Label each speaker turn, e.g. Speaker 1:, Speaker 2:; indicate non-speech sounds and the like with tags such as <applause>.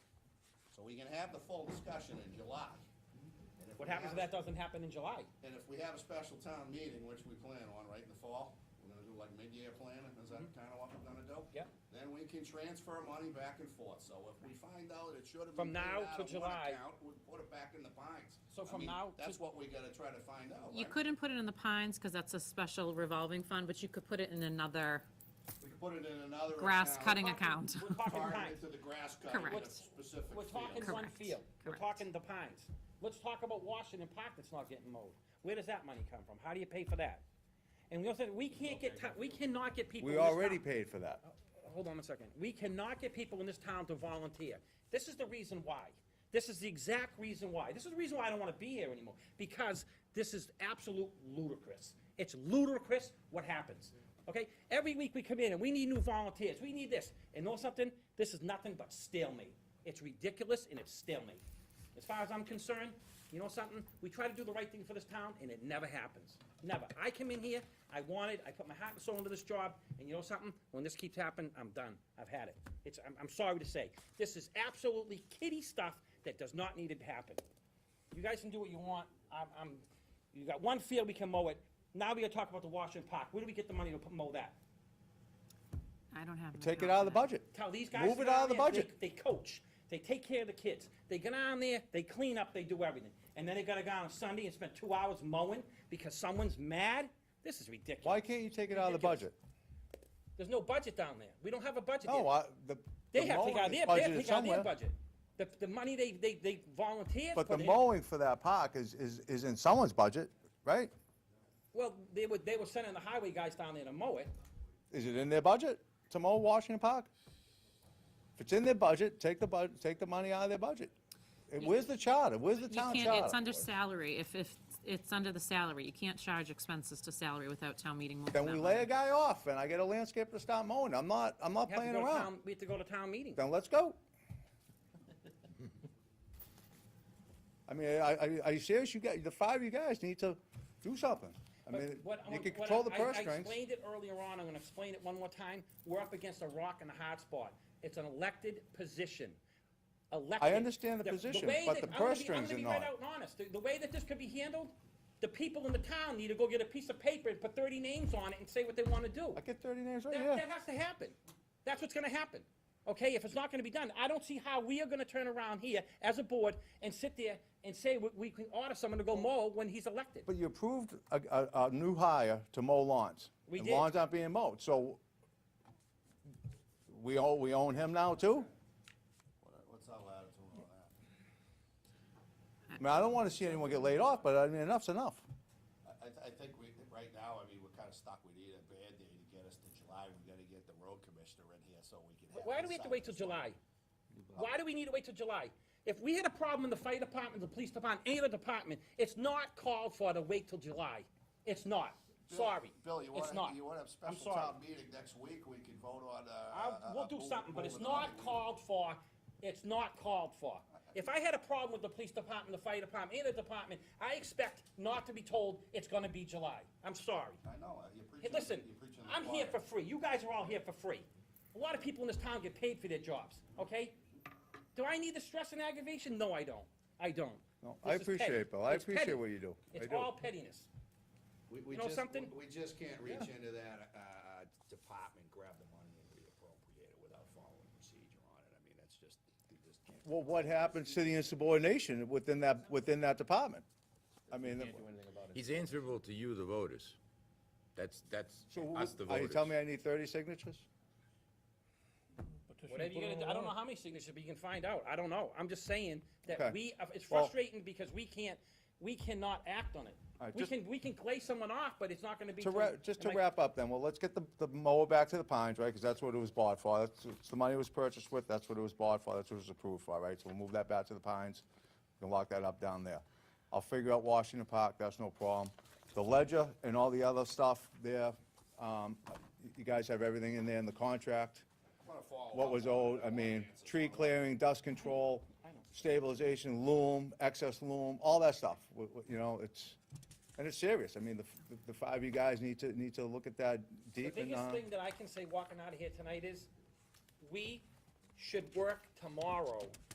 Speaker 1: we can have the full discussion in July. And if
Speaker 2: What
Speaker 1: we
Speaker 2: happens if
Speaker 1: have-
Speaker 2: that doesn't happen in July?
Speaker 1: And if we have a special town meeting, which we plan on, right, in the fall, we're gonna do like mid-year planning, is
Speaker 2: Mm-hmm.
Speaker 1: that kinda what we're gonna do?
Speaker 2: Yep.
Speaker 1: Then we can transfer money back and forth, so if we find out it should have
Speaker 2: From
Speaker 1: been paid
Speaker 2: now
Speaker 1: out
Speaker 2: to
Speaker 1: of one
Speaker 2: July.
Speaker 1: account, we put it back in the pines.
Speaker 2: So
Speaker 1: I
Speaker 2: from
Speaker 1: mean,
Speaker 2: now to-
Speaker 1: That's what we gotta try to find out,
Speaker 3: You
Speaker 1: right?
Speaker 3: couldn't put it in the Pines, because that's a special revolving fund, but you could put it in another
Speaker 1: We can put it in another
Speaker 3: grass
Speaker 1: account,
Speaker 3: cutting account.
Speaker 2: We're talking
Speaker 1: Target
Speaker 2: pines.
Speaker 1: to the grass cutting in a
Speaker 3: Correct.
Speaker 1: specific
Speaker 2: We're talking
Speaker 1: field.
Speaker 2: one
Speaker 3: Correct.
Speaker 2: field. We're
Speaker 3: Correct.
Speaker 2: talking the pines. Let's talk about Washington Park that's not getting mowed. Where does that money come from? How do you pay for that? And we also, we can't get, ti- we cannot get people in
Speaker 4: We
Speaker 2: this town.
Speaker 4: already paid for that.
Speaker 2: hold on a second. We cannot get people in this town to volunteer. This is the reason why. This is the exact reason why. This is the reason why I don't want to be here anymore, because this is absolute ludicrous. It's ludicrous what happens, okay? Every week we come in and we need new volunteers, we need this, and know something? This is nothing but stalemate. It's ridiculous and it's stalemate. As far as I'm concerned, you know something? We try to do the right thing for this town, and it never happens. Never. I came in here, I wanted, I put my heart and soul into this job, and you know something? When this keeps happening, I'm done. I've had it. It's, I'm, I'm sorry to say. This is absolutely kiddie stuff that does not need to happen. You guys can do what you want. I'm, I'm, you got one field, we can mow it. Now we gotta talk about the Washington Park. Where do we get the money to p- mow that?
Speaker 3: I don't have. an
Speaker 4: Take it
Speaker 3: account
Speaker 4: out of the
Speaker 3: for that.
Speaker 4: budget.
Speaker 2: Tell these guys.
Speaker 4: Move
Speaker 2: to
Speaker 4: it
Speaker 2: go
Speaker 4: out of the
Speaker 2: down there,
Speaker 4: budget.
Speaker 2: They they coach, they take care of the kids, they get on there, they clean up, they do everything. And then they gotta go on Sunday and spend two hours mowing because someone's mad? This is ridiculous.
Speaker 4: Why can't you take it out of the budget?
Speaker 2: There's no budget down there. We don't have a budget
Speaker 4: No,
Speaker 2: there.
Speaker 4: I, the.
Speaker 2: They
Speaker 4: the
Speaker 2: have to take out
Speaker 4: mowing is
Speaker 2: their, they have to
Speaker 4: budgeted
Speaker 2: take out their
Speaker 4: somewhere,
Speaker 2: budget. The, the money they, they, they volunteered
Speaker 4: But
Speaker 2: for
Speaker 4: the
Speaker 2: them-
Speaker 4: mowing for that park is, is, is in someone's budget, right?
Speaker 2: Well, they were, they were sending the highway guys down there to mow it.
Speaker 4: Is it in their budget to mow Washington Park? If it's in their budget, take the bud, take the money out of their budget. And where's the charter? Where's
Speaker 3: You
Speaker 4: the town
Speaker 3: can't, it's
Speaker 4: charter?
Speaker 3: under salary, if, if, it's under the salary, you can't charge expenses to salary without town meeting. vote
Speaker 4: Then
Speaker 3: for
Speaker 4: we
Speaker 3: that
Speaker 4: lay
Speaker 3: money.
Speaker 4: a guy off and I get a landscaper to stop mowing. I'm not, I'm not
Speaker 2: We have to
Speaker 4: playing
Speaker 2: go to
Speaker 4: around.
Speaker 2: town- We have to go to town meeting.
Speaker 4: Then
Speaker 2: <laughs>
Speaker 4: let's go. I mean, I, I, are you serious? You got, the five of you guys need to do something. I
Speaker 2: But
Speaker 4: mean,
Speaker 2: what I'm-
Speaker 4: you can
Speaker 2: what
Speaker 4: control the
Speaker 2: I- I-
Speaker 4: purse
Speaker 2: I
Speaker 4: strings.
Speaker 2: explained it earlier on, I'm gonna explain it one more time. We're up against a rock and a hard spot. It's an elected position. Elected.
Speaker 4: understand the position,
Speaker 2: way
Speaker 4: but
Speaker 2: that-
Speaker 4: the
Speaker 2: I'm gonna
Speaker 4: purse
Speaker 2: be- I'm
Speaker 4: strings
Speaker 2: gonna
Speaker 4: are
Speaker 2: be right
Speaker 4: not.
Speaker 2: out and honest. The- The way that this could be handled, the people in the town need to go get a piece of paper and put thirty names on it and say what they wanna do.
Speaker 4: I get thirty names right
Speaker 2: That,
Speaker 4: here.
Speaker 2: that has to happen. That's what's gonna happen. Okay, if it's not gonna be done, I don't see how we are gonna turn around here as a board and sit there and say we, we can order someone to go mow when he's elected.
Speaker 4: But you approved a, a, a new hire to mow lawns.
Speaker 2: We
Speaker 4: and
Speaker 2: did.
Speaker 4: Lawns aren't being mowed, so we own, we own him now too?
Speaker 1: What- What's our latitude on that?
Speaker 4: I mean, I don't wanna see anyone get laid off, but I mean, enough's enough.
Speaker 1: I, I th- I think we, right now, I mean, we're kinda stuck, we need a bad day to get us to July, we gotta get the road commissioner in here so we can have.
Speaker 2: Why do we have to wait till July? Why do we need to wait till July? If we had a problem in the fire department, the police department, any other department, it's not called for to wait till July. It's not.
Speaker 1: Bill-
Speaker 2: Sorry.
Speaker 1: Bill, you
Speaker 2: It's
Speaker 1: wanna,
Speaker 2: not.
Speaker 1: you wanna have
Speaker 2: I'm
Speaker 1: special
Speaker 2: sorry.
Speaker 1: town meeting next week, we can vote on, uh.
Speaker 2: I'll,
Speaker 1: uh,
Speaker 2: we'll
Speaker 1: uh,
Speaker 2: do
Speaker 1: move-
Speaker 2: something, but it's
Speaker 1: moving the money.
Speaker 2: not called for. It's not called
Speaker 1: <laughs>
Speaker 2: for. If I had a problem with the police department, the fire department, any other department, I expect not to be told it's gonna be July. I'm sorry.
Speaker 1: I know, uh, you're
Speaker 2: Hey,
Speaker 1: preaching,
Speaker 2: listen,
Speaker 1: you're preaching to the
Speaker 2: I'm here for
Speaker 1: choir.
Speaker 2: free. You guys are all here for free. A lot of people in this town get paid for their jobs, okay? Do I need the stress and aggravation? No, I don't. I don't.
Speaker 4: No, I
Speaker 2: This is petty.
Speaker 4: appreciate it, Bill. I
Speaker 2: It's
Speaker 4: appreciate
Speaker 2: petty.
Speaker 4: what you do. I
Speaker 2: It's
Speaker 4: do.
Speaker 2: all pettiness.
Speaker 1: We, we
Speaker 2: You know
Speaker 1: just,
Speaker 2: something?
Speaker 1: we we just can't reach into that, uh, department, grab the money and reappropriate it without following procedure on it, I mean, that's just, we just can't.
Speaker 4: Well, what happens to the insubordination within that, within that department? I mean, the-
Speaker 5: He's answerable to you, the voters. That's, that's
Speaker 4: so who-
Speaker 5: us, the
Speaker 4: are
Speaker 5: voters.
Speaker 4: you telling me I need thirty signatures?
Speaker 2: Whatever you're gonna do, I don't know how many signatures, but you can find out. I don't know. I'm just saying that
Speaker 4: Okay.
Speaker 2: we, it's
Speaker 4: Well-
Speaker 2: frustrating because we can't, we cannot act on it.
Speaker 4: All right,
Speaker 2: We
Speaker 4: just-
Speaker 2: can, we can glaze someone off, but it's not gonna be.
Speaker 4: To
Speaker 2: till-
Speaker 4: wrap, just to
Speaker 2: am I-
Speaker 4: wrap up then, well, let's get the, the mower back to the Pines, right, because that's what it was bought for, that's, it's the money it was purchased with, that's what it was bought for, that's what it was approved for, right, so we'll move that back to the Pines, and lock that up down there. I'll figure out Washington Park, that's no problem. The ledger and all the other stuff there, um, you- you guys have everything in there in the contract,
Speaker 1: I'm gonna follow
Speaker 4: what
Speaker 1: up
Speaker 4: was
Speaker 1: on it.
Speaker 4: owed, I mean, tree clearing, dust control, stabilization, loom, excess loom, all that stuff, Wh- wh- you know, it's, and it's serious, I mean, the, f- the five of you guys need to, need to look at that
Speaker 2: The
Speaker 4: deep and,
Speaker 2: biggest
Speaker 4: uh,
Speaker 2: thing that I can say walking out of here tonight is, we should work tomorrow